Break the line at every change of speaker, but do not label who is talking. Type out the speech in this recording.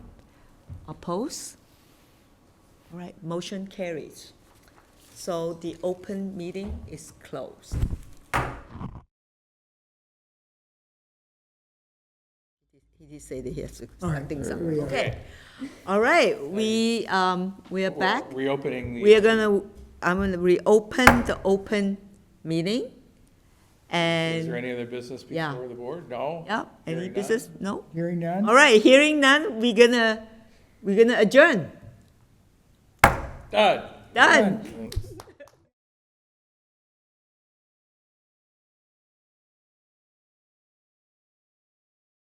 Oppose? All right, motion carries. So the open meeting is closed. He did say that he has to start things up. Okay. All right, we, um, we are back.
Reopening
We are
the,
gonna, I'm gonna reopen the open meeting.
is there
And,
any other business
Yeah.
before the board? No?
yeah, any
Hearing none?
business? No?
Hearing none?
All right, hearing none, we're gonna, we're gonna adjourn.
Done.
Done.